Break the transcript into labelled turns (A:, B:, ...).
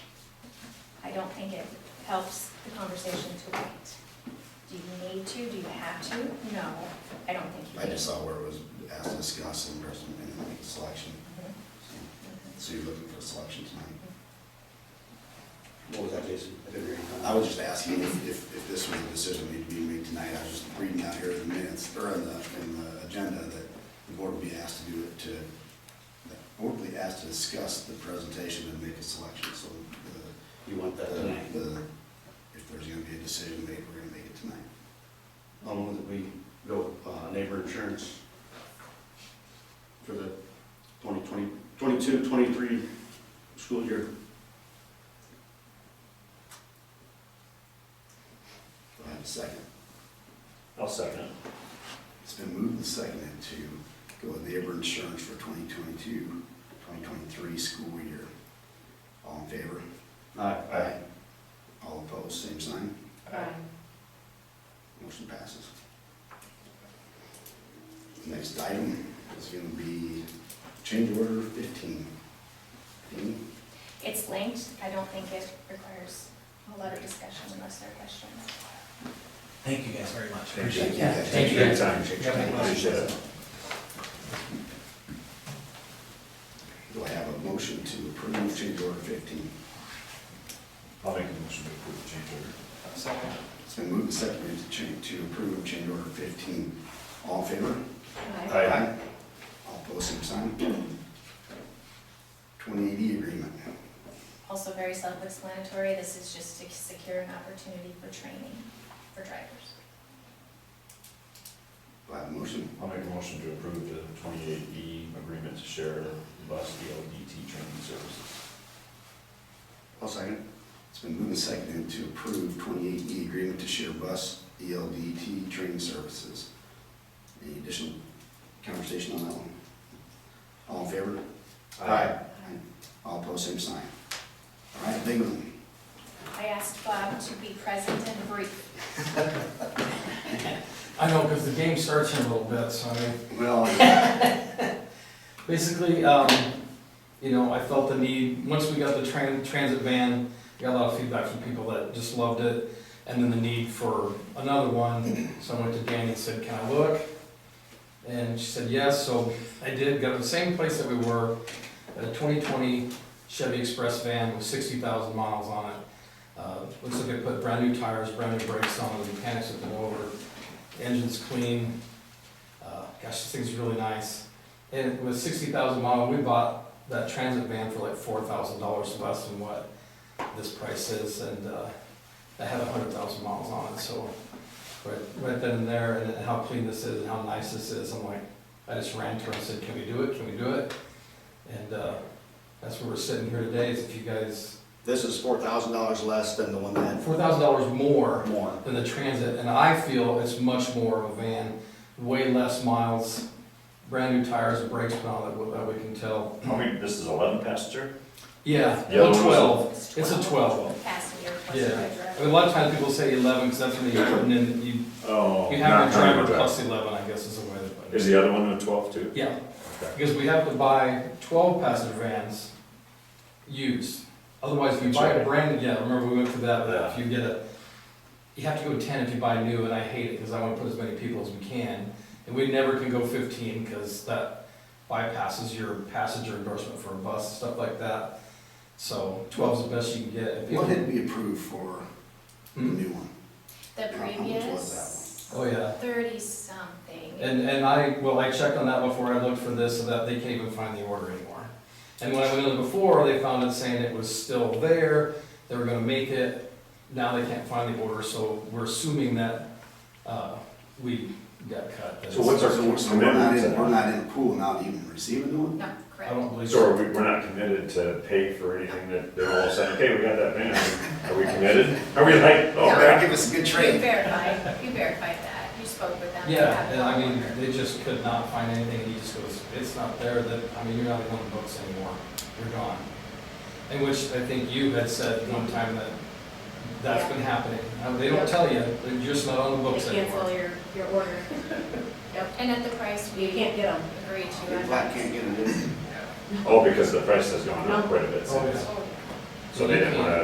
A: I don't think it helps the conversation to wait. Do you need to, do you have to? No, I don't think you
B: I
A: do.
B: just saw where it was asked to discuss and there's an- and make a selection.
A: Mhm,
B: So-
A: mhm.
B: So you're looking for a selection tonight.
C: What was that, Jason? I didn't hear you.
B: I was just asking if, if, if this was a decision that needed to be made tonight. I was just reading out here in the minutes, or in the, in the agenda, that the board will be asked to do it to, the board will be asked to discuss the presentation and make a selection. So the,
C: You want that
B: the-
C: tonight?
B: the, if there's gonna be a decision made, we're gonna make it tonight.
C: I'll move that we go with uh, neighbor insurance for the 2020, 22, 23 school year.
B: Do I have a second?
D: I'll second it.
B: It's been moved and seconded to go with neighbor insurance for 2022, 2023 school year. All in favor?
C: Aye.
B: All opposed, same sign.
A: Right.
B: Motion passes. Next item is going to be change order 15. Dean?
A: It's linked, I don't think it requires a lot of discussion unless there are questions.
E: Thank you guys very much.
B: Thank you.
E: Appreciate that.
B: Thank you.
E: guys.
D: Time.
E: If you have any
B: Appreciate
E: questions.
B: it. Do I have a motion to approve change order 15?
D: I'll make a motion to approve the change order.
B: It's been moved and seconded to change, to approve change order 15. All in favor?
D: Aye.
B: All opposed, same sign. 2080 agreement.
A: Also very self-explanatory, this is just to secure an opportunity for training for drivers.
B: Do I have a motion?
D: I'll make a motion to approve the twenty-eight B agreement to share bus ELDT training services.
B: I'll second. It's been moved and seconded to approve 28E agreement to share bus E ELDT training services. Any additional conversation on that one? All in favor? All opposed, same sign. All right, big one.
A: I asked Bob to be present and brief.
F: I know, because the game starts in a little bit, so I,
B: Well,
F: basically, um, you know, I felt the need, once we got the tran- transit van, we got a lot of feedback from people that just loved it, and then the need for another one, so I went to Danny and said, can I look? And she said yes, so I did, got the same place that we were, a twenty twenty Chevy Express van with sixty thousand miles on it. Uh, looks like I put brand new tires, brand new brakes on, it, the mechanics have been over, engine's clean, uh, gosh, this thing's really nice. And with sixty thousand mile, we bought that transit van for like four thousand dollars less than what this price is, and, uh, that had hundred thousand miles on it, so. Right, right then and there, and how clean this is, and how nice this is, I'm like, I just ran to her and said, can we do it, can we do it? And, uh, that's where we're sitting here today, is if you guys,
C: This is four thousand dollars less than the one that
F: four thousand dollars more
C: had more.
F: than the transit, and I feel it's much more of a van, way less miles, brand new tires and brakes, and all that, that we can tell.
D: How many, this is eleven passenger?
F: Yeah,
D: The other
F: well,
D: one was a-
F: twelve. It's a twelve.
A: Passenger,
F: Yeah. Uh,
A: passenger
F: I
A: driver.
F: mean, a lot of times people say eleven, because that's when you're putting in, you,
D: Oh.
F: you have
D: not
F: a driver
D: counting the
F: plus eleven, I guess is the way to put
D: Is
F: it.
D: the other one a twelve too?
F: Yeah,
D: Okay.
F: because we have to buy twelve passenger vans used. Otherwise, if you buy a
D: Sure.
F: brand, yeah, remember we went through that, that if
D: Yeah.
F: you get a, you have to go ten if you buy new, and I hate it, because I want to put as many people as we can. And we never can go fifteen, because that bypasses your passenger endorsement for a bus, stuff like that. So twelve's the best you can get. If people-
B: what did we approve for the
F: Hmm?
B: new one?
A: The
B: How much was
A: previous
F: Oh, yeah.
A: thirty-something.
F: And, and I, well, I checked on that before I looked for this, so that they can't even find the order anymore. And when I went in before, they found it saying it was still there, they were gonna make it, now they can't find the order, so we're assuming that, uh, we got cut.
D: So what's our-
B: So we're not in, we're not in a pool now to even receive a new one?
A: No,
F: I
A: correct.
F: don't believe.
D: So are we, we're not committed to pay for anything that they're all saying, okay, we got that van, are we committed? Are we like, oh, crap?
B: Give us a good
A: You
B: trade.
A: verified, you verified that, you spoke with them. You
F: Yeah,
A: have
F: and
A: the
F: I mean,
A: order.
F: they just could not find anything, and he just goes, it's not there, that, I mean, you're not in the books anymore, you're gone. And which I think you had said one time that that's been happening, Uh, they don't tell you, they're just not on the books
G: They cancel
F: anymore.
G: your, your order. Yep,
A: And at the price we
G: you can't get them.
A: agreed to.
B: Big Black can't get it in.
D: Oh, because the price has gone up quite a bit
F: Oh, yeah.
D: since, so they didn't wanna